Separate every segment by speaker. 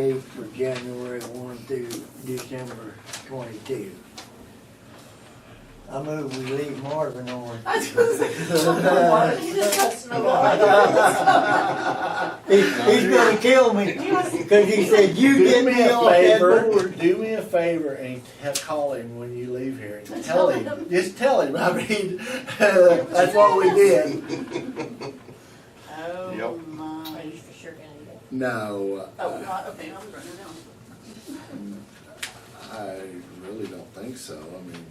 Speaker 1: Date for January one through December twenty-two. I move we leave Marvin on.
Speaker 2: I was gonna say, oh, he just touched my water.
Speaker 1: He- He's gonna kill me, cause he said, you
Speaker 3: Do
Speaker 1: did
Speaker 3: me
Speaker 1: me
Speaker 3: a
Speaker 1: off that
Speaker 3: favor,
Speaker 1: board.
Speaker 3: do me a favor and ha- call him when you leave here and
Speaker 2: Tell
Speaker 3: tell
Speaker 2: him.
Speaker 3: him, just tell him, I mean, that's what we did.
Speaker 2: Oh,
Speaker 4: Yep.
Speaker 2: my, are you for sure gonna do that?
Speaker 3: No,
Speaker 2: Oh,
Speaker 3: I
Speaker 2: God, okay, I'm running down.
Speaker 3: I really don't think so, I mean,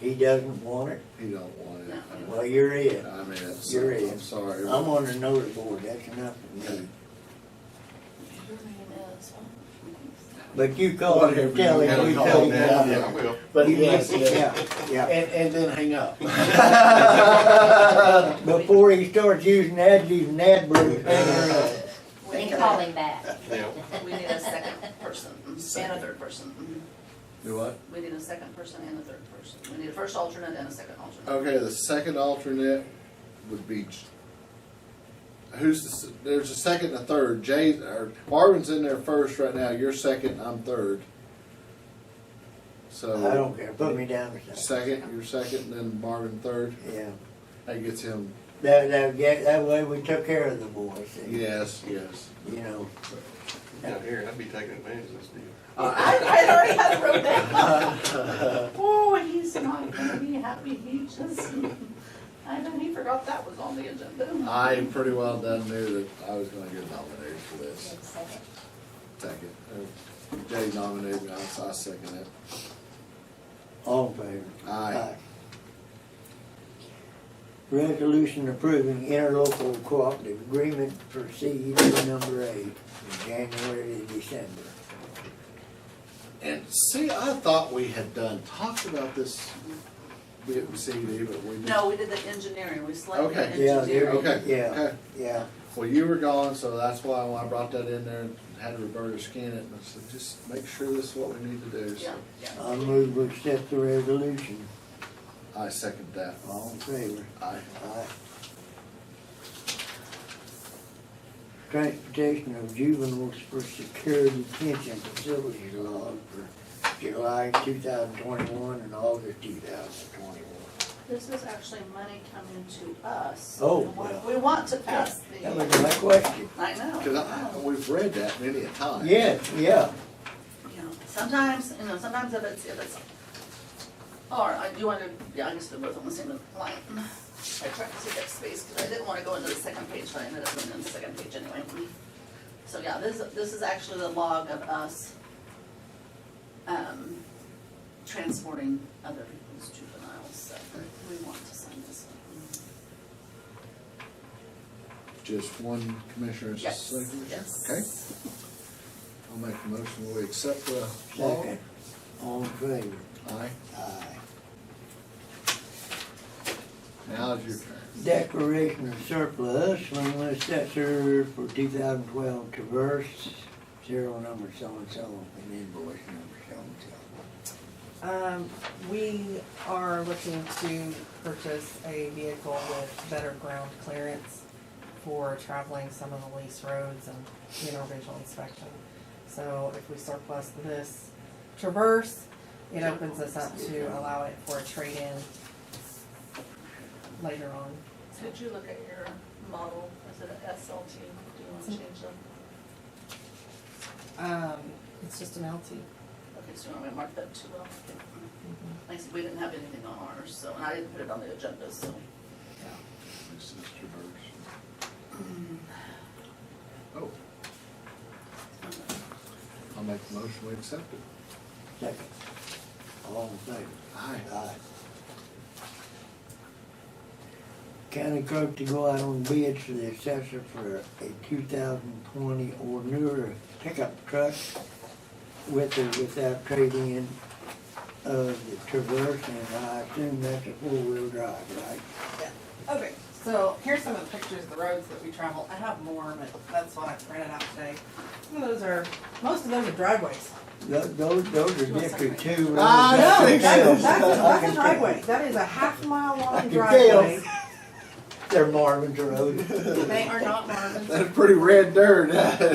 Speaker 1: He doesn't want it,
Speaker 3: he don't want it.
Speaker 1: well, you're it.
Speaker 3: I mean, it's,
Speaker 1: You're in.
Speaker 3: I'm sorry.
Speaker 1: I'm on the notice board, that's enough for me.
Speaker 2: Your name is,
Speaker 1: But you call him and tell him,
Speaker 3: Whatever
Speaker 1: we
Speaker 3: you
Speaker 1: told
Speaker 3: call
Speaker 1: you.
Speaker 3: him,
Speaker 1: about
Speaker 3: yeah.
Speaker 1: it.
Speaker 4: I will.
Speaker 3: But
Speaker 1: You
Speaker 3: yes,
Speaker 1: did-
Speaker 3: yes.
Speaker 1: Yeah, yeah.
Speaker 3: And, and then hang up.
Speaker 1: Before he starts using that, he's an adverb.
Speaker 2: we
Speaker 5: Then
Speaker 2: need,
Speaker 5: call
Speaker 2: a-
Speaker 5: him back.
Speaker 4: Yeah.
Speaker 2: we need a second person and a third person.
Speaker 3: Do what?
Speaker 2: We need a second person and a third person. We need a first alternate and a second alternate.
Speaker 3: Okay, the second alternate would be. J- Who's the, s- there's a second and a third. Jay or Marvin's in there first right now. You're second. I'm third. So
Speaker 1: I don't care, put me down or something,
Speaker 3: second, you're second, then Marvin third.
Speaker 1: yeah.
Speaker 3: That gets him.
Speaker 1: That, that, get- that way we took care of the boys, you
Speaker 3: Yes, yes.
Speaker 1: know.
Speaker 4: Down here, I'd be taking advantage of this deal.
Speaker 2: I, I already had it wrote down. Oh, he's not gonna be happy, he just, I know, he forgot that was on the agenda.
Speaker 3: I pretty well done knew that I was going to get nominated for this.
Speaker 5: Second.
Speaker 3: Second, Uh, Jay nominated me. I, I second it.
Speaker 1: All in favor?
Speaker 3: Aye.
Speaker 1: Resolution approving interlocal cooperative agreement for CED number eight, from January to December.
Speaker 3: And see, I thought we had done talked about this. We didn't see it, but we.
Speaker 2: No, we did the engineering, we selected
Speaker 3: Okay.
Speaker 2: the
Speaker 1: Yeah,
Speaker 2: engineering.
Speaker 1: there-
Speaker 3: Okay.
Speaker 1: Yeah.
Speaker 3: Okay.
Speaker 1: Yeah,
Speaker 3: Well, you were gone, so that's why when I brought that in there and had Roberta scan it, and I said, just make sure this is what we need to do.
Speaker 2: Yeah,
Speaker 3: So
Speaker 2: yeah.
Speaker 1: I move we accept the resolution.
Speaker 3: I second that.
Speaker 1: All in favor?
Speaker 3: I,
Speaker 1: Aye. Transportation of juveniles for security detention facilities log for July two thousand twenty-one and August two thousand twenty-one.
Speaker 2: This is actually money coming to us.
Speaker 1: Oh,
Speaker 2: We want-
Speaker 1: well.
Speaker 2: We want to pass the, Oh,
Speaker 1: That was my question.
Speaker 2: I know.
Speaker 3: cause I, we've read that many a time.
Speaker 1: Yes, yeah.
Speaker 2: Yeah. Sometimes, you know, sometimes if it's, if it's, or I do want to, yeah, I guess they're both on the same line. I tried to take up space because I didn't want to go into the second page, but I ended up going into the second page anyway. So yeah, this, this is actually the log of us, um, transporting other people's juveniles, so we want to sign this one.
Speaker 3: Just one commissioner's
Speaker 2: Yes,
Speaker 3: signature?
Speaker 2: yes.
Speaker 3: Okay, I'll make a motion, we accept the law.
Speaker 1: Second. All in favor?
Speaker 3: Aye,
Speaker 1: Aye.
Speaker 3: now is your turn.
Speaker 1: Declaration of surplus from the assessor for two thousand twelve traverse, serial number so-and-so and invoice number so-and-so.
Speaker 6: Um, we are looking to purchase a vehicle with better ground clearance for traveling some of the lease roads and interventional inspection. So if we surplus this Traverse, it opens us up to allow it for a trade-in later on.
Speaker 2: Did you look at your model, is it a SLT, do you want to change them?
Speaker 6: Um, it's just an LT.
Speaker 2: Okay, so I'm gonna mark that too well. Like I said, we didn't have anything on ours, so, and I didn't put it on the agenda, so.
Speaker 3: This is traverse. Oh,
Speaker 2: Um,
Speaker 3: I'll make a motion, we accept it.
Speaker 1: Second. All in favor?
Speaker 3: Aye.
Speaker 1: Aye. County clerk to go out on bids for the assessor for a two thousand twenty or newer pickup truck with or without trade-in of the Traverse, and I assume that's a four-wheel drive, right?
Speaker 6: Okay, so here's some of the pictures of the roads that we travel. I have more, but that's what I printed out today. Some of those are, most of those are driveways.
Speaker 1: Tho- Those, those are District Two.
Speaker 3: Ah,
Speaker 6: No,
Speaker 3: think
Speaker 6: that's,
Speaker 3: so.
Speaker 6: that's, that's a driveway, that is a half mile
Speaker 1: I
Speaker 6: long
Speaker 1: can
Speaker 6: driveway.
Speaker 7: They're Marvin's Road.
Speaker 1: They are not Marvin's.
Speaker 6: That's pretty red dirt.